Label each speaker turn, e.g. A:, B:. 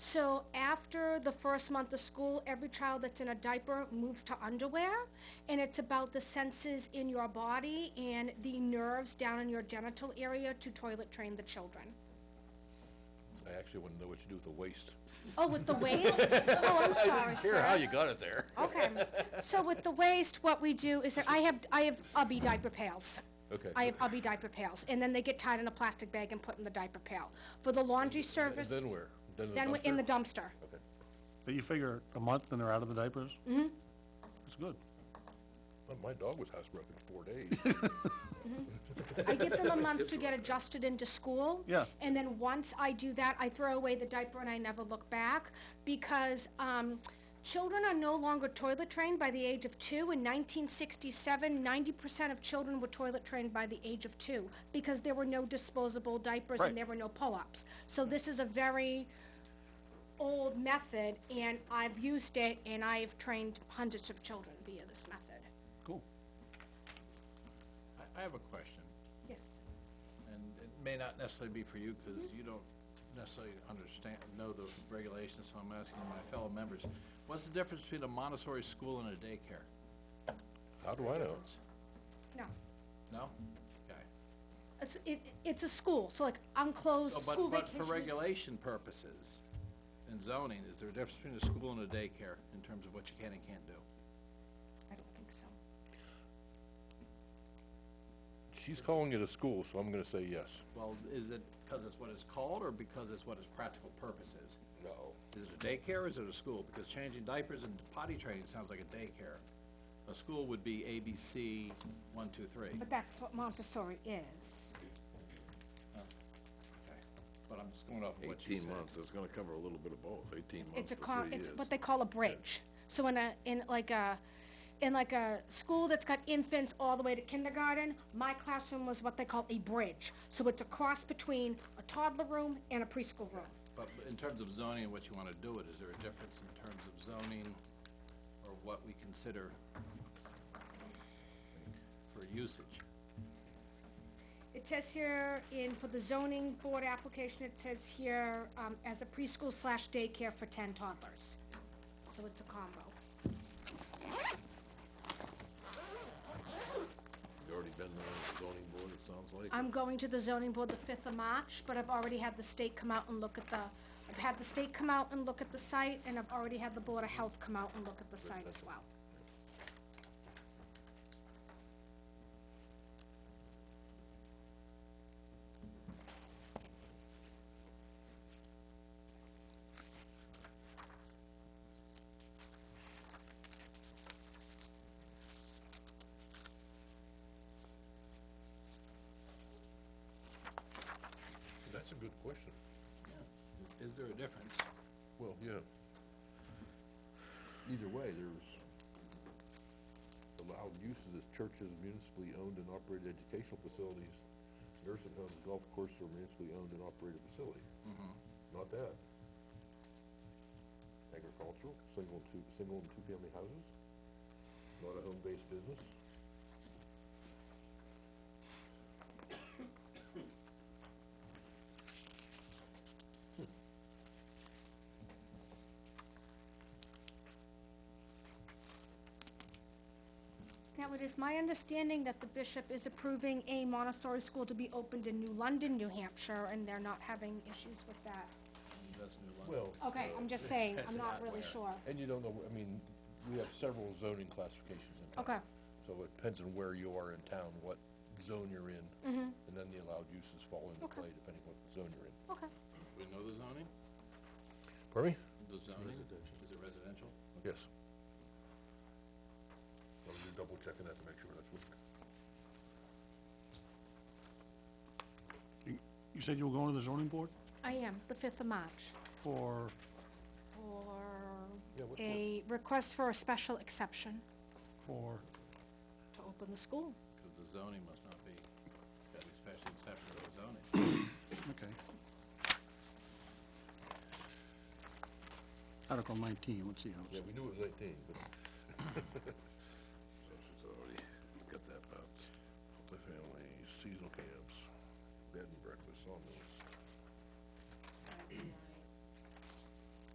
A: So after the first month of school, every child that's in a diaper moves to underwear, and it's about the senses in your body and the nerves down in your genital area to toilet train the children.
B: I actually wouldn't know what to do with the waste.
A: Oh, with the waist? Oh, I'm sorry, sir.
B: Care how you got it there.
A: Okay, so with the waste, what we do is that I have, I have ubby diaper pails.
B: Okay.
A: I have ubby diaper pails, and then they get tied in a plastic bag and put in the diaper pail. For the laundry service.
B: Then where? Then in the
A: Then we- in the
B: dumpster?
A: dumpster.
B: Okay.
C: But you figure a month and they're out of the diapers? Mm-hmm. That's good.
B: Well, My dog was housebroken for four days.
A: I give them a month to get adjusted into school.
C: Yeah.
A: And then once I do that, I throw away the diaper and I never look back because, um, children are no longer toilet trained by the age of two. In nineteen sixty-seven, ninety percent of children were toilet trained by the age of two because there were no disposable diapers
C: Right.
A: and there were no pull-ups. So this is a very old method and I've used it and I've trained hundreds of children via this method.
C: Cool.
D: I, I have a question,
A: Yes.
D: and it may not necessarily be for you, because you don't necessarily understand, know the regulations, so I'm asking my fellow members. What's the difference between a Montessori school and a daycare?
B: How do I know?
A: No.
D: No? Okay.
A: It's, it, it's a school, so like unclosed
D: So, Oh, but-
A: school vacation.
D: But for regulation purposes and zoning, is there a difference between a school and a daycare in terms of what you can and can't do?
A: I don't think so.
B: She's calling it a school, so I'm gonna say yes.
D: Well, is it because it's what it's called, or because it's what its practical purpose is?
B: No.
D: Is it a daycare or is it a school? Because changing diapers and potty training sounds like a daycare. A school would be A, B, C, one, two, three.
A: But that's what Montessori is.
D: Okay. But I'm just going off of what you
E: Eighteen
D: said.
E: months, so it's gonna cover a little bit of both, eighteen
A: It's
E: months
A: a
E: to
A: con,
E: three
A: it's
E: years.
A: what they call a bridge. So in a, in like a, in like a school that's got infants all the way to kindergarten, my classroom was what they call a bridge. So it's a cross between a toddler room and a preschool room.
D: But in terms of zoning and what you wanna do it, is there a difference in terms of zoning or what we consider for usage?
A: It says here in, for the zoning board application, it says here, um, as a preschool slash daycare for ten toddlers. So it's a combo.
E: You already been there on the zoning board, it sounds like.
A: I'm going to the zoning board the fifth of March, but I've already had the state come out and look at the, I've had the state come out and look at the site, and I've already had the Board of Health come out and look at the site as well.
B: That's a good question.
D: Is there a difference?
B: Well, yeah. Either way, there's allowed uses as churches, municipally owned and operated educational facilities, nursing homes, golf courses, or municipally owned and operated facility. Not that. Agricultural, single and two, single and two-family houses, not a home-based business.
A: Now, it is my understanding that the bishop is approving a Montessori school to be opened in New London, New Hampshire, and they're not having issues with that.
D: That's New London.
B: Well,
A: Okay, I'm just saying, I'm not
D: not
A: really
D: where.
A: sure.
B: and you don't know, I mean, we have several zoning classifications in town.
A: Okay,
B: So it depends on where you are in town, what zone you're in. And then the allowed uses fall into
A: Mm-hmm. Okay.
B: play depending what zone you're in.
A: okay.
D: We know the zoning?
B: Pardon me?
D: The zoning? Is it residential?
B: Yes. I'm just double checking that to make sure that's what.
C: You you said you were going to the zoning board
A: I am, the fifth of March,
C: for,
B: Yeah,
A: for
B: what-
A: a request for a special exception
C: for,
A: to open the school.
D: Because the zoning must not be, gotta be special exception to the zoning.
C: okay. Article nineteen, let's see how it's,
B: Yeah, we knew it was eighteen, but